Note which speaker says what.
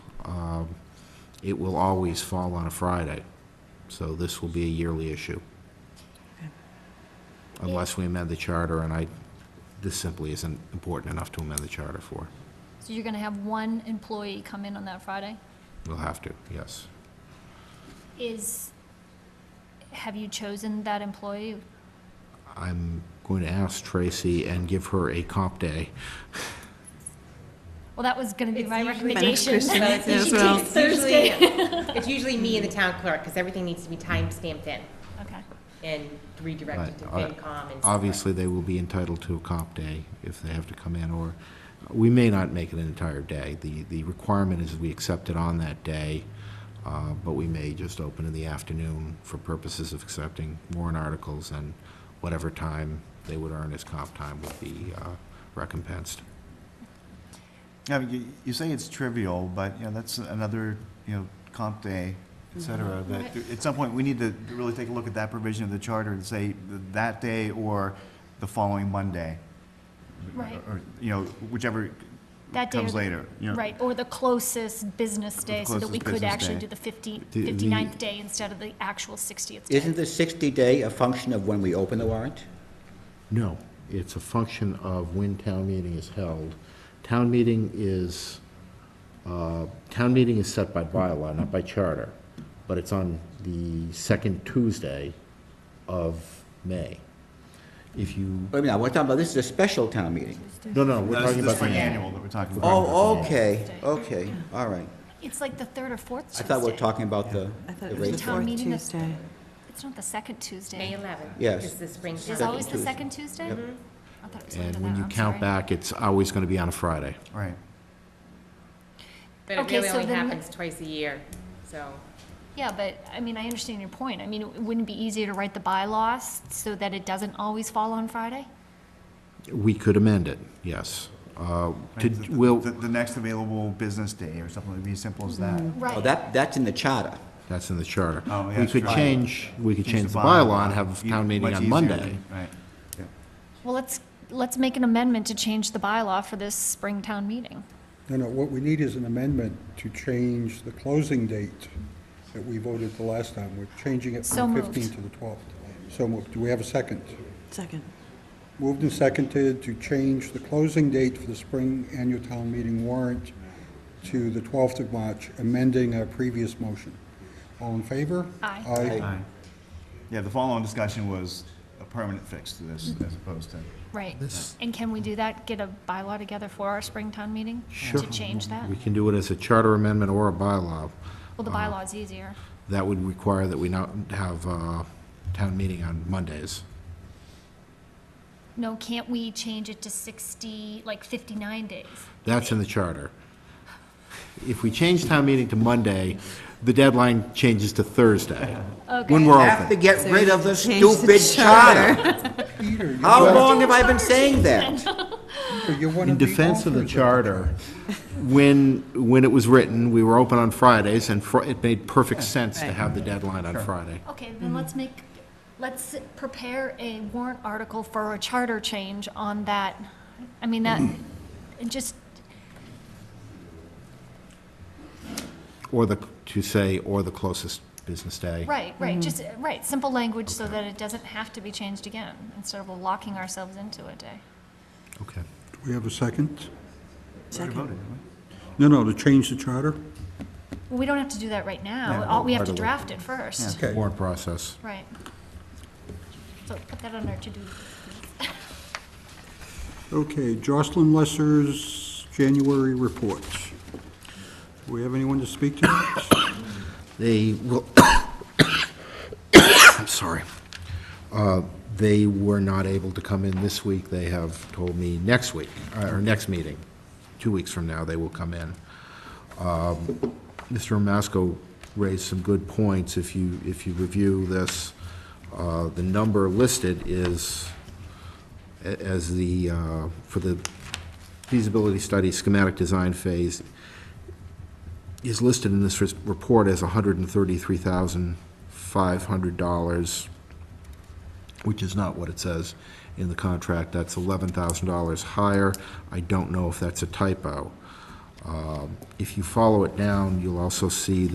Speaker 1: Um, it will always fall on a Friday. So this will be a yearly issue. Unless we amend the charter, and I, this simply isn't important enough to amend the charter for.
Speaker 2: So you're gonna have one employee come in on that Friday?
Speaker 1: We'll have to, yes.
Speaker 2: Is, have you chosen that employee?
Speaker 1: I'm going to ask Tracy and give her a comp day.
Speaker 2: Well, that was gonna be
Speaker 3: It's
Speaker 2: my
Speaker 3: usually-
Speaker 2: recommendation.
Speaker 3: Thanks, Kristen.
Speaker 2: that you
Speaker 3: As
Speaker 2: should
Speaker 3: well.
Speaker 2: take Thursday.
Speaker 3: It's usually me and the town clerk, because everything needs to be time stamped in
Speaker 2: Okay,
Speaker 3: and redirected to
Speaker 1: Right.
Speaker 3: FinCom and stuff like
Speaker 1: Obviously, they will be entitled to a comp day if they have to come in, or, we may not make it an entire day. The, the requirement is we accept it on that day, uh, but we may just open in the afternoon for purposes of accepting warrant articles, and whatever time they would earn as comp time would be uh, recompensed.
Speaker 4: I mean, you, you say it's trivial, but, you know, that's another, you know, comp day,
Speaker 2: Mm-hmm.
Speaker 4: et cetera, that at some point, we need to really take a look at that provision of the charter and say th- that day or the following Monday.
Speaker 2: Right.
Speaker 4: Or, you know, whichever
Speaker 2: That day or
Speaker 4: comes
Speaker 2: the-
Speaker 4: later. you know.
Speaker 2: right, or the closest business day, so that we
Speaker 4: closest
Speaker 2: could
Speaker 4: business
Speaker 2: actually
Speaker 4: day.
Speaker 2: do the fifty,
Speaker 1: The- the-
Speaker 2: fifty-ninth day instead of the actual sixtieth day.
Speaker 5: Isn't the 60-day a function of when we open the warrant?
Speaker 1: No, it's a function of when town meeting is held. Town meeting is, uh, town meeting is set by bylaw, not by charter, but it's on the second Tuesday of May. If you,
Speaker 5: Wait a minute, we're talking about, this is a special town meeting.
Speaker 1: no, no, we're
Speaker 4: No, this
Speaker 1: talking
Speaker 4: is this
Speaker 1: about
Speaker 4: for
Speaker 1: the
Speaker 4: annual that we're talking about.
Speaker 5: Oh, okay, okay, all right.
Speaker 2: It's like the third or fourth
Speaker 5: I
Speaker 2: Tuesday.
Speaker 5: thought we were talking about the
Speaker 6: I thought
Speaker 5: the
Speaker 6: it was the
Speaker 5: rate.
Speaker 2: Town
Speaker 6: fourth
Speaker 2: meeting is-
Speaker 6: Tuesday.
Speaker 2: It's not the second
Speaker 3: that. May
Speaker 2: Tuesday.
Speaker 3: 11th.
Speaker 5: Yes.
Speaker 3: Is the spring
Speaker 2: There's
Speaker 3: town.
Speaker 2: always the
Speaker 5: Tuesday.
Speaker 2: second Tuesday? I thought it was later
Speaker 1: And
Speaker 2: than
Speaker 1: when
Speaker 2: that,
Speaker 1: you
Speaker 2: I'm
Speaker 1: count
Speaker 2: sorry.
Speaker 1: back, it's always going to be on a Friday.
Speaker 4: Right.
Speaker 3: But it
Speaker 2: Okay,
Speaker 3: really
Speaker 2: so
Speaker 3: only
Speaker 2: then-
Speaker 3: happens twice a year, so.
Speaker 2: Yeah, but, I mean, I understand your point. I mean, wouldn't it be easier to write the bylaws so that it doesn't always fall on Friday?
Speaker 1: We could amend it, yes. Uh, To,
Speaker 4: Right, the-
Speaker 1: will,
Speaker 4: The, the next available business day or something, it'd be as simple as that.
Speaker 2: Mm-hmm.
Speaker 5: Oh, that, that's in the charter.
Speaker 1: that's in the charter.
Speaker 4: Oh, yeah,
Speaker 1: We could
Speaker 4: sure.
Speaker 1: change, we could change the bylaw and have town meeting
Speaker 4: Much
Speaker 1: on
Speaker 4: easier
Speaker 1: Monday.
Speaker 4: than- Right. Yeah.
Speaker 2: Well, let's, let's make an amendment to change the bylaw for this spring town meeting.
Speaker 7: No, no, what we need is an amendment to change the closing date that we voted the last time. We're changing it
Speaker 2: So
Speaker 7: from
Speaker 2: moved.
Speaker 7: 15 to the 12th. So moved. Do we have a second?
Speaker 6: Second.
Speaker 7: Moved and seconded to change the closing date for the spring annual town meeting warrant to the 12th of March, amending our previous motion. All in favor?
Speaker 2: Aye.
Speaker 7: Aye.
Speaker 4: Aye. Yeah, the following discussion was a permanent fix to this as opposed to.
Speaker 2: Right. And can we do that, get a bylaw together for our spring town meeting?
Speaker 1: Sure.
Speaker 2: To change that?
Speaker 1: We uh-huh. can do it as a charter amendment or a bylaw.
Speaker 2: Well, the bylaw is easier.
Speaker 1: That would require that we not have a town meeting on Mondays.
Speaker 2: No, can't we change it to sixty, like fifty-nine days?
Speaker 1: That's in the charter. If we change town meeting to Monday, the deadline changes to Thursday. When
Speaker 2: Okay.
Speaker 1: we're
Speaker 5: Have to
Speaker 1: open.
Speaker 5: get rid of the
Speaker 6: Change the
Speaker 5: stupid charter.
Speaker 7: Peter, you're
Speaker 5: How
Speaker 7: one-
Speaker 5: long have I been saying that?
Speaker 7: Peter, you're one
Speaker 1: In
Speaker 7: of the
Speaker 1: defense of the
Speaker 7: authors
Speaker 1: charter, when, when it was written, we were open on Fridays, and fr- it made perfect sense to have the deadline on Friday.
Speaker 2: Okay, then let's make, let's prepare a warrant article for a charter change on that. I mean, that, and just,
Speaker 1: Or the, to say, or the closest business day.
Speaker 2: right, right, just, uh, right, simple language so that it doesn't have to be changed again, instead of locking ourselves into a day.
Speaker 1: Okay.
Speaker 7: Do we have a second?
Speaker 6: Second.
Speaker 7: No, no, to change the charter?
Speaker 2: Well, we don't have to do that right now. All, we have to
Speaker 1: Article.
Speaker 2: draft it first.
Speaker 7: Okay.
Speaker 1: Warrant process.
Speaker 2: Right. So put that on our to-do. list, please.
Speaker 7: Okay, Jocelyn Lesser's January report. Do we have anyone to speak to?
Speaker 1: They will, I'm sorry. Uh, They were not able to come in this week. They have told me next week, uh, or next meeting, two weeks from now, they will come in. Um, Mr. Masco raised some good points. If you, if you review this, uh, the number listed is a- as the, uh, for the feasibility study schematic design phase, is listed in this res- report as $133,500, which is not what it says in the contract. That's $11,000 higher. I don't know if that's a typo. Um, If you follow it down, you'll also see